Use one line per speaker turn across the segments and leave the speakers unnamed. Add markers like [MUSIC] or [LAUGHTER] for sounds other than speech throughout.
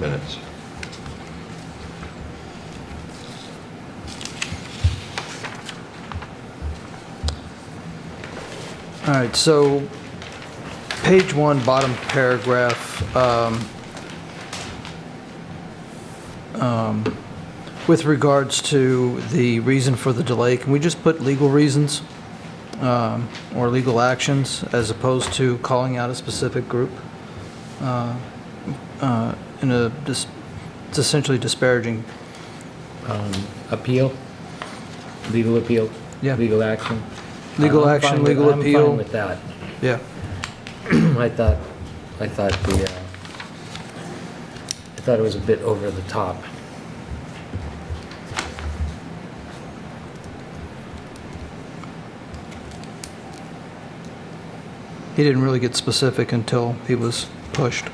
minutes.
All right, so page one, bottom paragraph. um, um, With regards to the reason for the delay, can we just put legal reasons um, or legal actions as opposed to calling out a specific group? Uh, uh, In a, dis- it's essentially disparaging.
Appeal, legal appeal?
Yeah.
Legal action?
Legal
I'm fine
action,
with-
legal
I'm
appeal.
fine with that. [CLEARS THROAT]
Yeah,
I thought, I thought the, uh, I thought it was a bit over the top.
he didn't really get specific until he was pushed.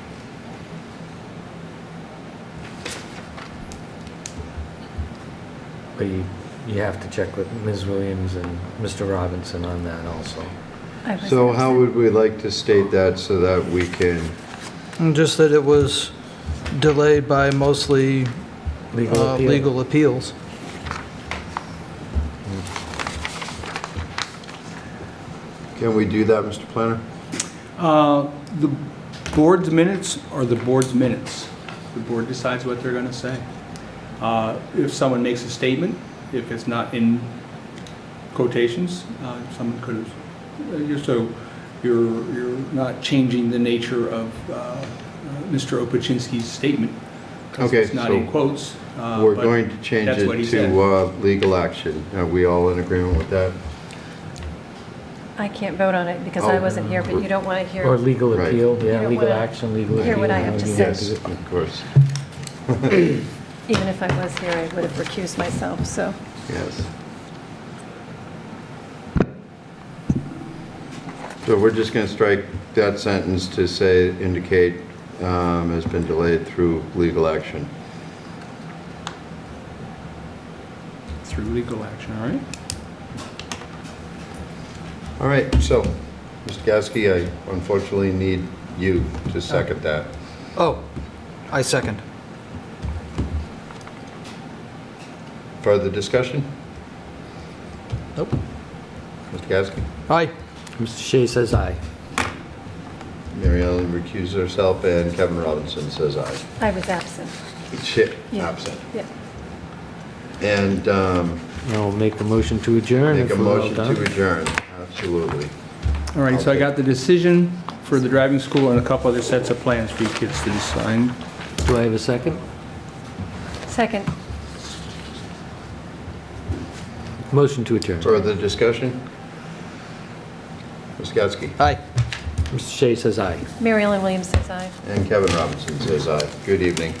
But you, you have to check with Ms. Williams and Mr. Robinson on that also.
I was
So
gonna
how
say-
would we like to state that so that we can,
Mm, Just that it was delayed by mostly
Legal
uh,
appeal?
legal appeals.
can we do that, Mr. Planner?
Uh, The board's minutes are the board's minutes. The board decides what they're going to say. Uh, If someone makes a statement, if it's not in quotations, uh, someone could have, uh, you're so, you're, you're not changing the nature of uh, uh, Mr. Opachinsky's statement. 'cause
Okay,
It's not in
so
quotes. uh,
We're
but
going to change
that's what he
it
said.
to uh, legal action. Are we all in agreement with that?
I can't vote on it because I
Oh.
wasn't here, but you don't want to hear.
Or legal
Right.
appeal,
Hear
yeah,
what
legal
I-
action, legal appeal.
hear what I have to
legal
Yes,
say.
appeal.
of course,
Even if I was here, I would have recused myself, so.
yes. So we're just going to strike that sentence to say, indicate um, has been delayed through legal action.
Through legal action, all right?
All right, so, Mr. Gasky, I unfortunately need you to second that.
Oh, I second.
Further discussion?
Nope.
Mr. Gasky?
Aye.
Mr. Shea says aye.
Mary Ellen recuses herself, and Kevin Robinson says aye.
I was absent.
Chip,
Yeah.
absent.
Yeah.
And um,
I'll make a motion to adjourn
make
if
a
we're all
motion to
done.
adjourn, absolutely.
All right, so I got the decision for the driving school and a couple other sets of plans for you kids to sign.
Do I have a second?
Second,
Motion to adjourn.
Further discussion? Ms. Gatsky?
Aye.
Mr. Shea says aye.
Mary Ellen Williams says aye.
And Kevin Robinson says aye. Good evening.